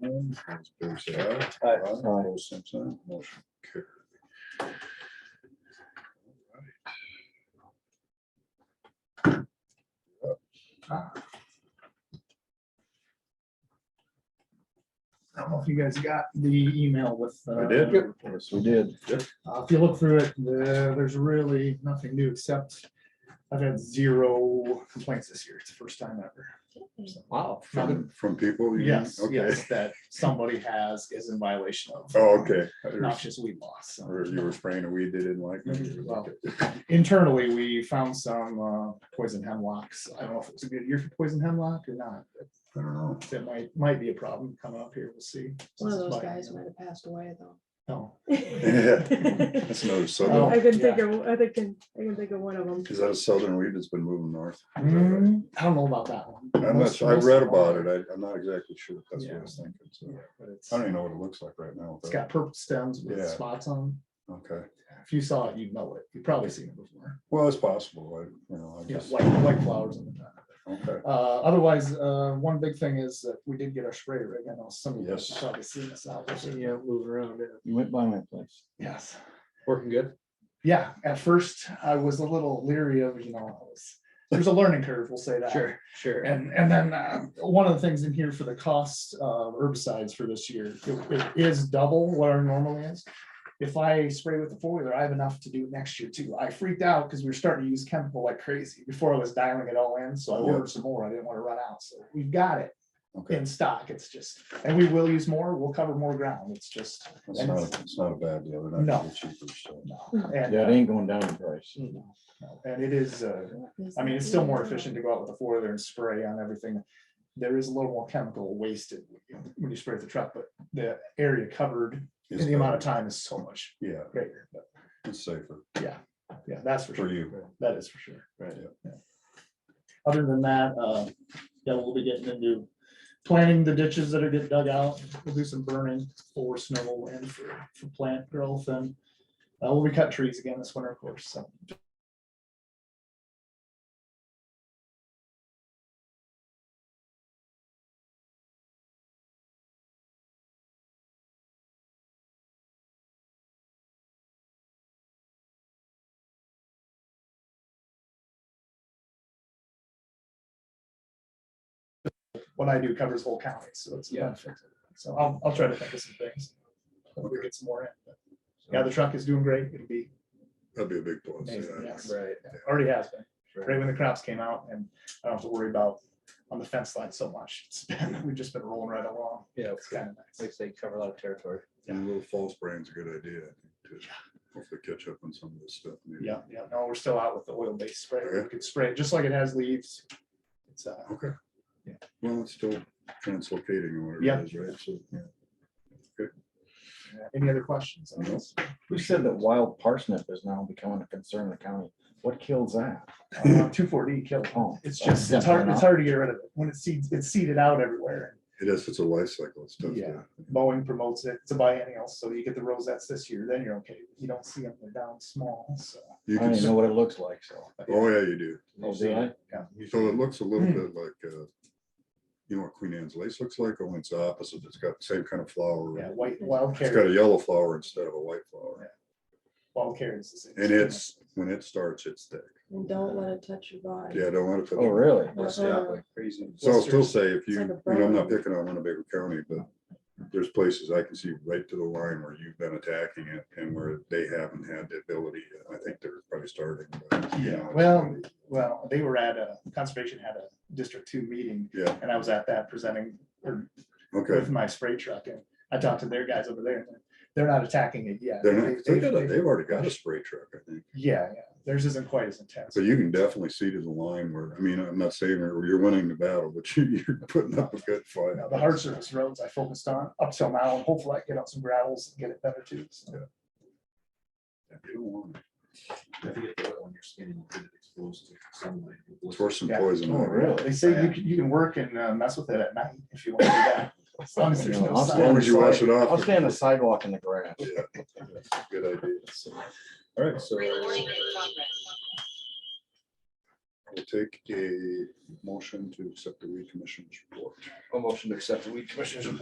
Those opposed say aye. Aye. Opposed, same sign. Motion carried. I don't know if you guys got the email with. uh, I did. Yes, We did. Uh, If you look through it, the- there's really nothing new except I've had zero complaints this year. It's the first time ever. Wow. From from people? you mean? Yes, Okay. yes, that somebody has is in violation of. Oh, okay. Noxious weed laws. so. Or you were spraying a weed they didn't like. maybe. Well, Internally, we found some uh, poison hemlocks. I don't know if it was a good year for poison hemlock or not. I don't know. That might, might be a problem coming up here. We'll see. One of those But- uh, guys might have passed away though. No, Yeah, That's another Oh. southern, I can think of, I think, I can think of one of them. is that a southern weed that's been moving north? I don't know about that one. I'm not, sure. I read about it. I, I'm not exactly sure. That's what I was thinking. So Yeah, but I it's- don't even know what it looks like right now. It's but- got purple stems Yeah. with spots on. 'em. Okay. If you saw it, you'd know it. You've probably seen it before. Well, it's possible. I, you know, I Yeah, just, white, white flowers on the top. okay. Uh, otherwise, uh, one big thing is that we did get our spray rig. I know some of you guys Yes. probably seen this out. Yeah, move around, yeah. You went by my place. Yes. working good. Yeah, at first I was a little leery of, you know, I was, there's a learning curve, we'll say that. sure. And, and then uh, one of the things in here for the cost of herbicides for this year, it- it is double what our normal is. If I spray with the four wheeler, I have enough to do next year too. I freaked out because we were starting to use chemical like crazy before I was dialing it all in, so I Yeah. ordered some more. I didn't want to run out, so we've got it Okay. in stock. It's just, and we will use more, we'll cover more ground. It's just, It's not, it's not a bad deal. They're No. not really cheaper. So no. And, Mm-hmm. Yeah, it ain't going down in price. and it is, uh, I mean, it's still more efficient to go out with a four wheeler and spray on everything. There is a little more chemical wasted when you spray the truck, but the area covered and it's the amount of better. time is so much Yeah, greater. But it's safer yeah, that's for for sure. you. That is for sure. Right. Yeah. Other than that, uh, yeah, we'll be getting into planting the ditches that are getting dug out. We'll do some burning for snow and for, for plant growth and uh, we'll be cut trees again this winter, of course, so. what I do covers whole county, so it's. a Yeah. benefit. So I'll, I'll try to think of some things. Hopefully we get some more in. but, Yeah, the truck is doing great. It'll be That'd be a big plus. amazing. yeah. Yes, Right. already has been. Right when the crops came out and I don't have to worry about on the fence line so much. It's been, we've just been rolling right along. Yeah, It's kind of nice. like they cover a lot of territory. And a little false brain's a good idea I think, to hopefully catch up on some of this stuff. maybe. Yeah, yeah. No, we're still out with the oil-based spray. Okay. We could spray it just like it has leaves. It's, uh, Okay. Yeah. Well, it's still translocating or whatever Yeah. it is, right? So, yeah. any other questions? on No. this? Who said that wild parsnip is now becoming a concern in the county? What kills that? Uh, Two four D kill. Oh, It's just, it's hard, it's hard to get rid of it. When it seeds, it's seeded out everywhere. It is, it's a life cycle. It's tough. Yeah. Boeing promotes it. It's a biennial, so you get the rosettes this year, then you're okay. You don't see them, they're down small, so. You I can, don't even s- know what it looks like, so. oh, yeah, you do. Oh, did I? So it looks a little bit like, uh, you know what Queen Anne's lace looks like? Only it's opposite. It's got the same kind of Yeah, flower. white, wild It's got carrot, a yellow flower instead of a white flower. wild carrots. is- And it's, when it starts, it's thick. And don't let it touch your body. Yeah, don't let it. Oh, really? Uh-huh. Crazy. So I'll still say if It's you, like a you know, I'm not burn. picking on Winnebago County, but there's places I can see right to the line where you've been attacking it and where they haven't had the ability. I think they're probably starting. but, you Yeah, know, well, well, they were at a, conservation had a District Two meeting, Yeah, and I was at that presenting or okay. with my spray truck, and I talked to their guys over there, and they're not attacking it yet. They're not, They- they they- got a- they- they've already got a spray truck, I think. Yeah, yeah, theirs isn't quite as intense. So you can definitely see to the line where, I mean, I'm not saying you're you're winning the battle, but you- you're putting up a good fight. Now, The hard surface roads I focused on up till now, and hopefully I get out some gravels and get it better too. so. If you get the oil on your skin and you get it exposed to sunlight. it will- It's worth some Yeah. poison. Oh, on it. really? They say you can, you can work and uh, mess with it at night if you want to do that. As long as there's You know, no I'll As sun. long as you wash it off. I'll stay on the sidewalk in the grass. Yeah, that's a Good idea. So, All right, so we'll take a motion to accept the weed commission's report. A motion to accept the weed commissioner's report.